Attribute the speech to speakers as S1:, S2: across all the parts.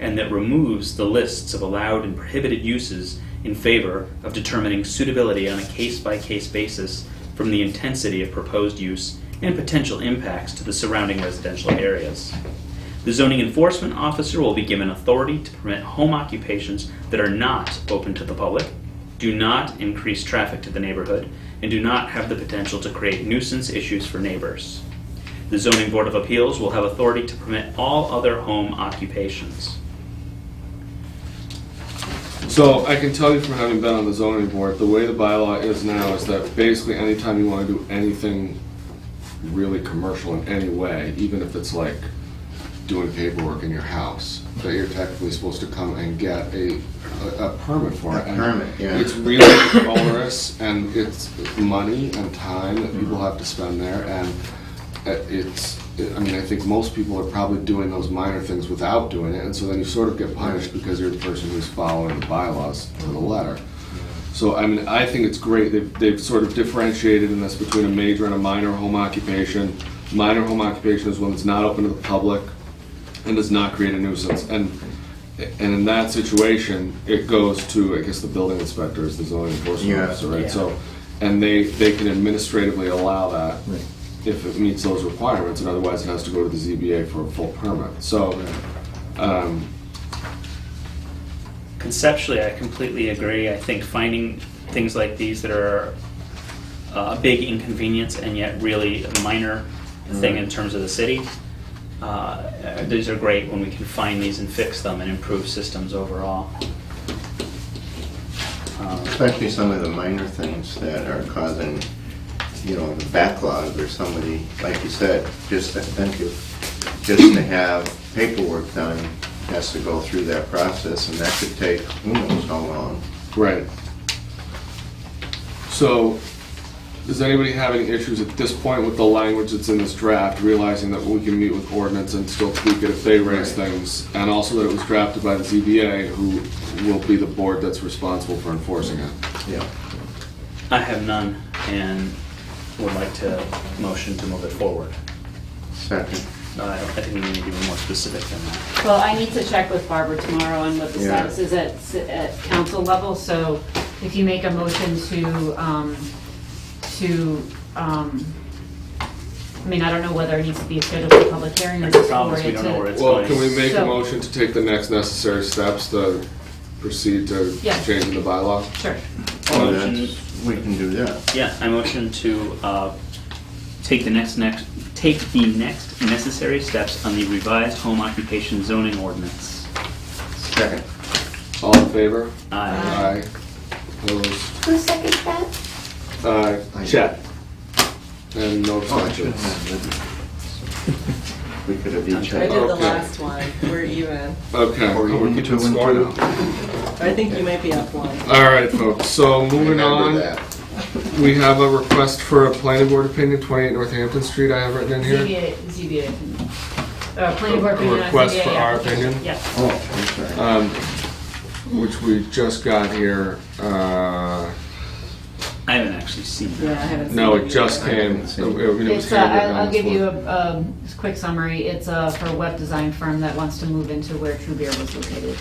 S1: and that removes the lists of allowed and prohibited uses in favor of determining suitability on a case-by-case basis from the intensity of proposed use and potential impacts to the surrounding residential areas. The zoning enforcement officer will be given authority to permit home occupations that are not open to the public, do not increase traffic to the neighborhood, and do not have the potential to create nuisance issues for neighbors. The Zoning Board of Appeals will have authority to permit all other home occupations.
S2: So I can tell you from having been on the zoning board, the way the bylaw is now is that basically anytime you wanna do anything really commercial in any way, even if it's like doing paperwork in your house, that you're technically supposed to come and get a, a a permit for
S3: A
S2: it. And
S3: permit, yeah.
S2: It's really onerous and it's money and time that people have to spend there and it- it's, I mean, I think most people are probably doing those minor things without doing it, and so then you sort of get punished because you're the person who's following the bylaws to the letter. So, I mean, I think it's great, they've, they've sort of differentiated in this between a major and a minor home occupation. Minor home occupation is one that's not open to the public and does not create a nuisance, and, and in that situation, it goes to, I guess, the building inspector is the zoning enforcement
S3: Yeah.
S2: officer, right?
S4: Yeah.
S2: So, and they, they can administratively allow that
S3: Right.
S2: if it meets those requirements, and otherwise it has to go to the ZBA for a full permit. So, um,
S1: Conceptually, I completely agree. I think finding things like these that are uh, a big inconvenience and yet really a minor thing in terms of the city, uh, uh, these are great when we can find these and fix them and improve systems overall. Um,
S3: Especially some of the minor things that are causing, you know, the backlog or somebody, like you said, just, to- thank you, just to have paperwork done, has to go through that process, and that could take who knows how long.
S2: right. So, does anybody have any issues at this point with the language that's in this draft, realizing that we can meet with ordinance and still tweak it if they raise
S3: Right.
S2: things? And also that it was drafted by the ZBA, who will be the board that's responsible for enforcing it?
S3: Yeah.
S1: I have none and would like to motion to move it forward.
S3: Second.
S1: Uh, I don't- I think we need to be more specific than that.
S4: Well, I need to check with Barbara tomorrow on what the
S3: Yeah.
S4: status is at, s- at council level, so if you make a motion to, um, to, um, I mean, I don't know whether it needs to be scheduled for public hearing or
S1: That's the
S4: just
S1: problem,
S4: forward
S1: is we
S4: it
S1: don't know where
S4: to.
S1: it's
S2: Well, can
S1: going.
S2: we make a
S4: So-
S2: motion to take the next necessary steps to proceed to
S4: Yeah.
S2: changing the bylaw?
S4: Sure,
S3: Oh,
S1: Motion-
S3: that's- We can do that.
S1: Yeah, I motion to uh, take the next, next, take the next necessary steps on the revised home occupation zoning ordinance.
S3: Second.
S2: All in favor?
S1: Aye.
S2: Aye. Opposed?
S5: Who seconds that?
S2: Uh,
S3: Aye.
S2: Chet? And no
S3: Oh, I should
S2: abstentions.
S3: have written. We could have each
S6: I
S3: had.
S6: did the
S2: Okay.
S6: last one. We're even.
S2: Okay.
S3: Or
S2: Oh,
S3: you
S2: we're
S3: can
S2: keeping
S3: two and
S2: score
S3: two.
S2: now.
S6: I think you might be up one.
S2: All right, folks, so moving
S3: Remember
S2: on,
S3: that.
S2: we have a request for a planning board opinion, 28 Northampton Street, I have written in here.
S4: ZBA, ZBA, opinion. uh, planning board opinion on
S2: Request
S4: ZBA
S2: for our
S4: application.
S2: opinion?
S4: Yes.
S3: Oh, I'm sorry.
S2: um, Which we just got here, uh,
S1: I haven't actually seen
S6: Yeah, I
S1: that.
S6: haven't seen
S2: no,
S6: yet.
S2: it just came. It- it was
S4: It's,
S2: handwritten
S4: uh, I'll
S2: on
S4: I'll
S2: this
S4: give you
S2: one.
S4: a, a quick summary. It's, uh, for a web design firm that wants to move into where True Beer was located.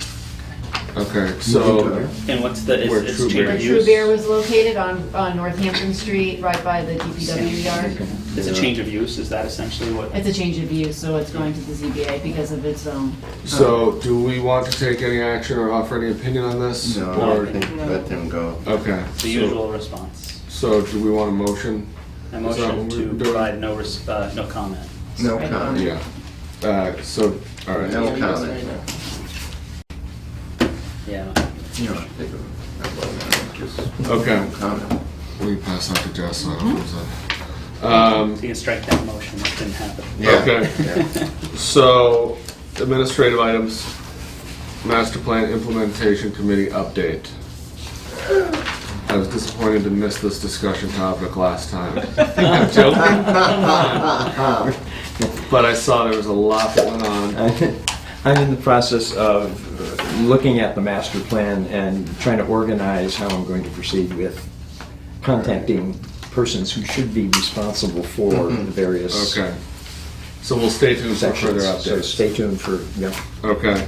S2: Okay,
S3: You
S2: so,
S3: can do
S1: And what's the,
S2: Where
S1: is
S2: True
S1: it's change
S2: Bear
S4: Where
S1: of
S4: True
S1: use?
S4: Beer was located on, on Northampton Street, right by the DPW yard.
S1: It's a change of use, is that essentially what?
S4: E It's a change of use, so it's going to the ZBA because of its own.
S2: so do we want to take any action or offer any opinion on this?
S3: No,
S2: Or-
S3: I think let them go.
S2: Okay.
S1: The usual response.
S2: So do we want a motion?
S1: I
S2: Is that
S1: motion
S2: what
S1: to
S2: we're doing?
S1: provide no, res- uh, no comment.
S3: No
S4: Right.
S3: comment.
S2: Yeah. Uh, so, all right.
S3: No
S6: Yeah, it's right
S3: comment.
S6: now.
S1: Yeah.
S3: You know, they go, I vote, just
S2: Okay.
S3: no comment.
S2: We can pass out to Jess. so I don't lose that. Um,
S1: So you can strike that motion, that didn't happen.
S3: Yeah,
S2: Okay.
S3: yeah.
S2: so administrative items, master plan implementation committee update. I was disappointed to miss this discussion topic last time. I'm joking, but I saw there was a lot that went on.
S7: I'm in the process of looking at the master plan and trying to organize how I'm going to proceed with contacting persons who should be responsible for the various
S2: Okay. So we'll stay tuned Mm-hmm. for further
S7: sections. So
S2: updates.
S7: stay tuned for, yeah.
S2: Okay.